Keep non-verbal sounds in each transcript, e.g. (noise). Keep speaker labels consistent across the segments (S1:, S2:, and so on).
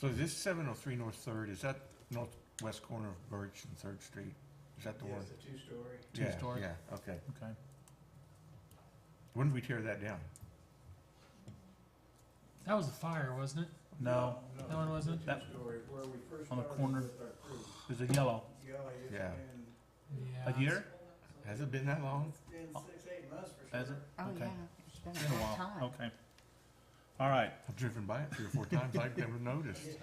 S1: So is this seven oh three North Third, is that northwest corner of Birch and Third Street? Is that the
S2: Yeah,
S1: one?
S2: it's a two-story.
S1: Yeah,
S3: Two-story.
S1: Yeah, okay.
S3: Okay.
S1: When did we tear that down?
S4: That was a fire, wasn't it?
S3: No,
S4: That one wasn't?
S2: It's a two-story, where we first
S3: On the
S2: started
S3: corner.
S2: with our crew.
S3: there's a yellow.
S2: Yeah, it's
S1: Yeah.
S2: been,
S4: Yeah.
S3: A year?
S1: Has it been that long?
S2: it's been six, eight months for sure.
S3: Has it?
S5: Oh,
S3: Okay.
S5: yeah, it's been
S3: It's been a
S5: a long
S3: while.
S5: time.
S3: Okay. All right.
S1: I've driven by it three or four times, I've never noticed.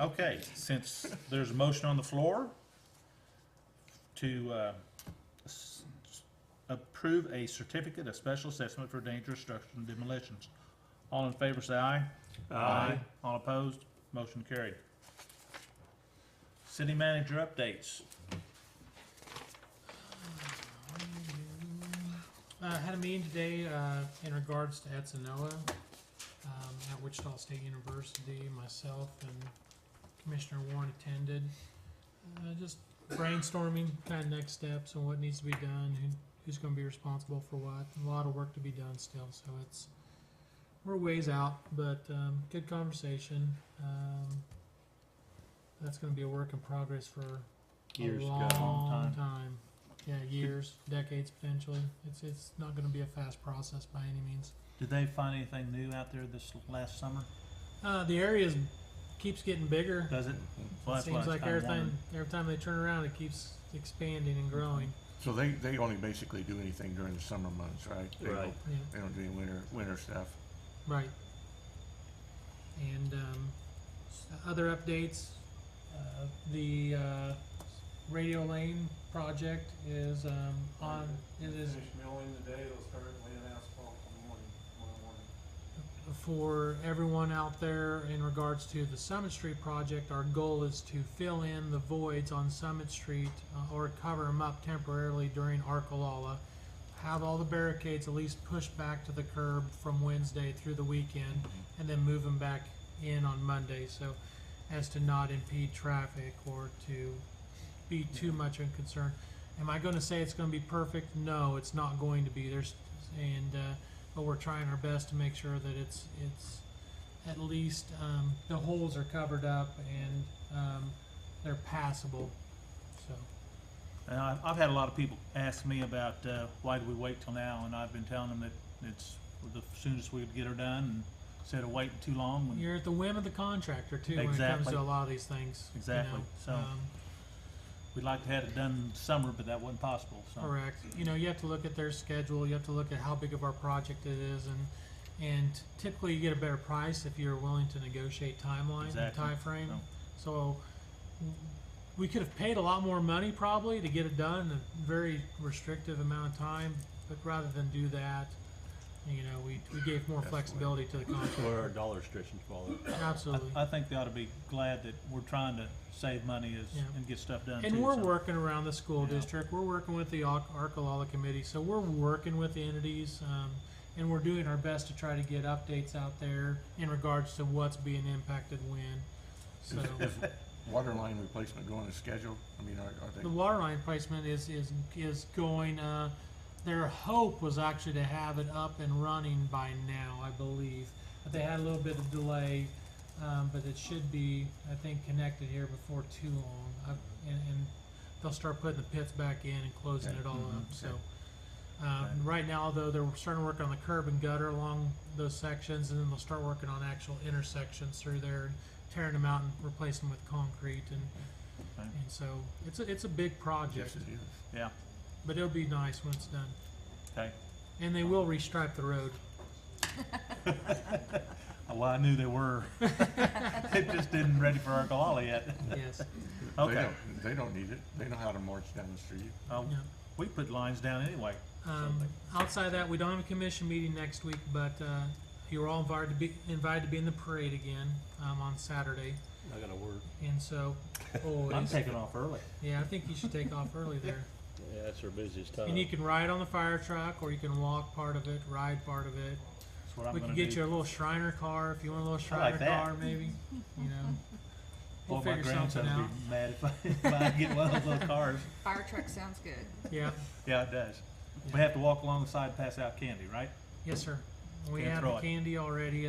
S3: Okay, since there's a motion on the floor to uh, s- s- approve a certificate of special assessment for dangerous structures and demolitions. All in favor, say aye. All opposed, motion carried. City manager updates.
S4: Uh, had a meeting today, uh, in regards to Etzanoa, um, at Wichita State University. Myself and Commissioner Warren attended. Uh, just brainstorming kind of next steps and what needs to be done, who, who's gonna be responsible for what. A lot of work to be done still, so it's, we're ways out, but, um, good conversation. Um, that's gonna be a work in progress for
S3: Years
S4: a
S3: ago.
S4: long,
S3: Long time.
S4: time. Yeah, years, decades potentially. It's it's not going to be a fast process by any means.
S3: Did they find anything new out there this last summer?
S4: Uh, the area is, keeps getting bigger.
S3: Does it? Well,
S4: It
S3: that's what I
S4: seems
S3: was
S4: like
S3: kinda
S4: every time
S3: wondering.
S4: every time they turn around, it keeps expanding and growing.
S1: So they, they only basically do anything during the summer months, right? They don't-
S3: Right.
S4: Yeah,
S1: They don't do any winter, winter stuff.
S4: right. And um, s- other updates. Uh, the uh, radio lane project is um, on. It is
S2: Finish milling today, it'll start laying asphalt in the morning, tomorrow
S4: for
S2: morning.
S4: everyone out there in regards to the Summit Street project, our goal is to fill in the voids on Summit Street uh, or cover them up temporarily during Arkalala. Have all the barricades at least pushed back to the curb from Wednesday through the weekend and then move them back in on Monday so as to not impede traffic or to be too much in concern. Am I going to say it's going to be perfect? No, it's not going to be. There's and uh, but we're trying our best to make sure that it's it's at least um, the holes are covered up and um, they're passable. So
S3: And I- I've had a lot of people ask me about uh, why do we wait till now, and I've been telling them that it's the soonest we would get her done, and instead of waiting too long. when-
S4: you're at the whim of the contractor too when it comes
S3: Exactly.
S4: to a lot of these things. you
S3: Exactly.
S4: know.
S3: So-
S4: Um,
S3: We'd like to have it done in the summer, but that wasn't possible, so.
S4: Correct. You know, you have to look at their schedule. You have to look at how big of our project it is, and and typically you get a better price if you're willing to negotiate timeline
S3: Exactly.
S4: and timeframe.
S3: No.
S4: So w- we could have paid a lot more money probably to get it done in a very restrictive amount of time, but rather than do that, you know, we, we gave more
S1: That's the way.
S4: flexibility to the contractor.
S6: Where our dollar restrictions fall.
S3: I,
S4: Absolutely.
S3: I think they ought to be glad that we're trying to save money is,
S4: Yeah.
S3: and get stuff done too.
S4: And we're
S3: so-
S4: working around the school
S3: Yeah.
S4: district, we're working with the Ar- Arcalala committee, so we're working with the entities, um, and we're doing our best to try to get updates out there in regards to what's being impacted when. So,
S1: Is, is water line replacement going as scheduled? I mean, are, are they?
S4: the water line placement is, is, is going, uh, their hope was actually to have it up and running by now, I believe. But they had a little bit of delay, um, but it should be, I think, connected here before too long. I, and, and they'll start putting the pits back in and closing
S1: Okay.
S4: it all
S3: Mhm.
S4: up. So,
S1: Okay.
S4: um,
S3: Okay.
S4: right now, though, they're starting to work on the curb and gutter along those sections, and then they'll start working on actual intersections through there and tearing them out and replacing them with concrete. And,
S3: Okay.
S4: and so it's a, it's a big project,
S1: Yes, it is.
S3: Yeah,
S4: but it'll be nice when it's done.
S3: okay.
S4: And they will restripe the road.
S3: Well, I knew they
S4: (laughs)
S3: were. (laughs) It just didn't ready for Arcalala yet.
S4: Yes.
S1: They
S3: Okay.
S1: don't, they don't need it. They know how to march down the street.
S3: Uh,
S4: Yeah.
S3: We put lines down anyway.
S4: Um, outside of that, we don't have a commission meeting next week, but uh, you're all invited to be invited to be in the parade again um, on Saturday.
S6: I got a word.
S4: And so, always,
S3: I'm taking off early.
S4: yeah, I think you should take off early there.
S6: Yeah, that's our busiest time.
S4: And you can ride on the fire truck, or you can walk part of it, ride part of it.
S3: That's what I'm
S4: we
S3: gonna do.
S4: can get you a little Shriner car if you want a little
S3: I like
S4: Shriner
S3: that.
S4: car, maybe. You
S3: (laughs)
S4: know, we'll
S3: Boy, Oh, my
S4: figure something
S3: grandson
S4: out.
S3: would be (laughs) mad if I, if I get one of those little cars.
S5: Fire truck sounds good.
S4: Yeah.
S3: Yeah, it does. We have to walk along the side, pass out candy, right?
S4: Yes, sir. We
S3: Can't
S4: have
S3: throw
S4: the
S3: it.
S4: candy already.